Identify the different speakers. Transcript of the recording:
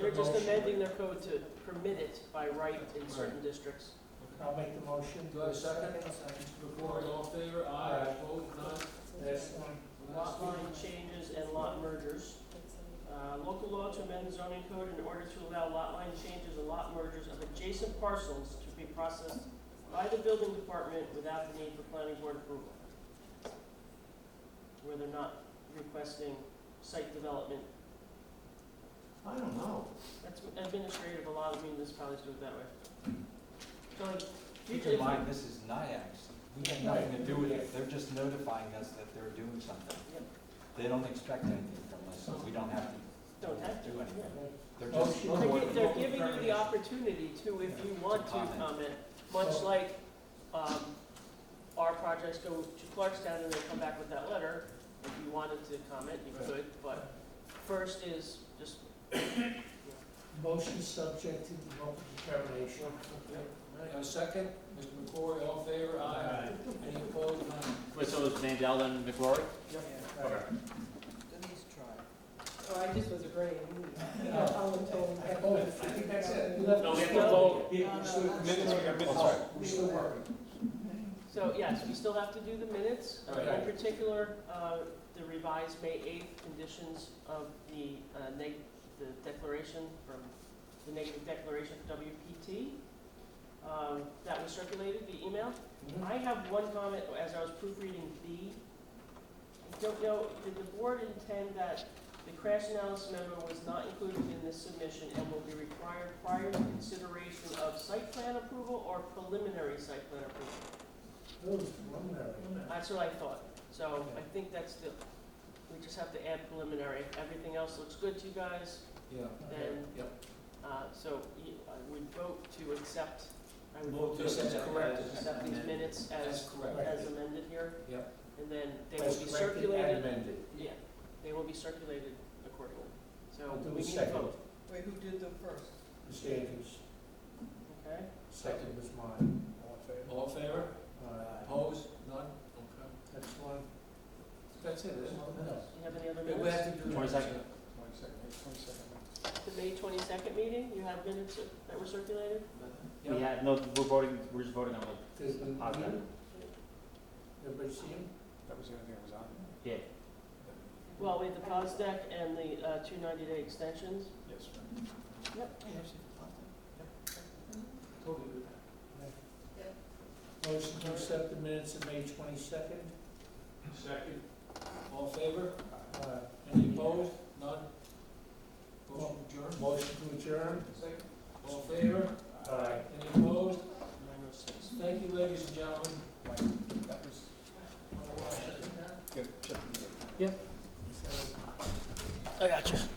Speaker 1: were just
Speaker 2: Motion.
Speaker 1: amending their code to permit it by right in certain districts.
Speaker 2: I'll make the motion.
Speaker 3: Do I have a second?
Speaker 2: Second.
Speaker 3: Before, all in favor, aye,
Speaker 2: Aye.
Speaker 3: opposed, none.
Speaker 2: Next one.
Speaker 1: Lot line changes and lot mergers. Uh, Local law to amend zoning code in order to allow lot line changes and lot mergers of adjacent parcels to be processed by the building department without the need for planning board approval. Where they're not requesting site development.
Speaker 4: I don't know.
Speaker 1: That's administrative, a lot of municipalities do it that way. So like,
Speaker 5: Keep
Speaker 1: future-
Speaker 5: in mind, this is NIAX. We have nothing to do with it. They're just notifying us that they're doing something.
Speaker 1: Yep.
Speaker 5: They don't expect anything from us, so we don't have to
Speaker 1: Don't have to.
Speaker 5: do anything. They're just.
Speaker 2: Motion.
Speaker 1: They're
Speaker 2: Or
Speaker 1: gi- They're giving you the opportunity to, if you want to
Speaker 5: Comment.
Speaker 1: comment, much
Speaker 2: So-
Speaker 1: like um, our projects go to Clarkstown and they come back with that letter. If you wanted to comment, you
Speaker 2: Right.
Speaker 1: could, but first is just,
Speaker 2: Motion subject to the local determination.
Speaker 3: A second, Mr. McCrory, all in favor, aye, any opposed, none.
Speaker 6: Wait, so it was Mandel and McCrory?
Speaker 2: Okay.
Speaker 7: Oh, I just was agreeing.
Speaker 2: I both, I think that's it. We left-
Speaker 6: No, we have to vote.
Speaker 2: Yeah, we're still-
Speaker 7: Minutes, we got
Speaker 5: minutes.
Speaker 2: Oh, We're still working.
Speaker 1: so yes, we still have to do the minutes. Uh, In
Speaker 3: Right.
Speaker 1: particular, uh, the revised May 8th conditions of the uh, neg, the declaration from, the negative declaration from WPT. um, That was circulated, the email. I have one comment as I was proofreading B. I don't know, did the board intend that the crash analysis memo was not included in this submission and will be required prior to consideration of site plan approval or preliminary site plan approval?
Speaker 2: Those preliminary.
Speaker 1: That's what I thought. So I think that's the, we just have to add preliminary. If Everything else looks good to you guys,
Speaker 3: Yeah.
Speaker 1: then,
Speaker 3: Yep.
Speaker 1: uh, so you- I would vote to accept, I would
Speaker 3: Vote
Speaker 1: vote
Speaker 3: to
Speaker 1: to accept,
Speaker 3: accept
Speaker 1: correct,
Speaker 3: as
Speaker 1: accept these
Speaker 3: amended.
Speaker 1: minutes as
Speaker 3: That's correct.
Speaker 1: as amended here.
Speaker 3: Yep.
Speaker 1: And then they will be
Speaker 2: As corrected and
Speaker 1: circulated,
Speaker 2: amended.
Speaker 1: yeah, they will be circulated accordingly. So
Speaker 2: I'll do
Speaker 1: we need a
Speaker 2: a second.
Speaker 1: vote,
Speaker 7: Wait, who did the first?
Speaker 2: Ms. Andrews,
Speaker 1: okay?
Speaker 2: second was mine. All in favor?
Speaker 3: All in favor,
Speaker 2: All right.
Speaker 3: opposed, none, okay.
Speaker 2: Next one.
Speaker 3: That's it, isn't it?
Speaker 2: No.
Speaker 1: Do you have any other
Speaker 3: Okay, We
Speaker 1: minutes?
Speaker 3: have to
Speaker 6: 22nd.
Speaker 3: do.
Speaker 1: The May twenty-second meeting, you have minutes that were circulated?
Speaker 3: Yeah.
Speaker 6: We had, no, we're voting, we're just voting on the
Speaker 2: There's been,
Speaker 6: positive.
Speaker 2: everybody see him?
Speaker 6: Yeah.
Speaker 1: Well, we had the POS deck and the, uh, two ninety-day extensions.
Speaker 3: Totally do that.
Speaker 2: Motion to accept the minutes of May twenty-second.
Speaker 3: Second. All in favor,
Speaker 2: Uh,
Speaker 3: any opposed, none. Motion adjourned.
Speaker 2: motion to adjourn.
Speaker 3: Second. All in favor,
Speaker 2: Aye.
Speaker 3: any opposed,
Speaker 1: Nine oh six.
Speaker 3: thank you, ladies and gentlemen. That was.
Speaker 6: I got you.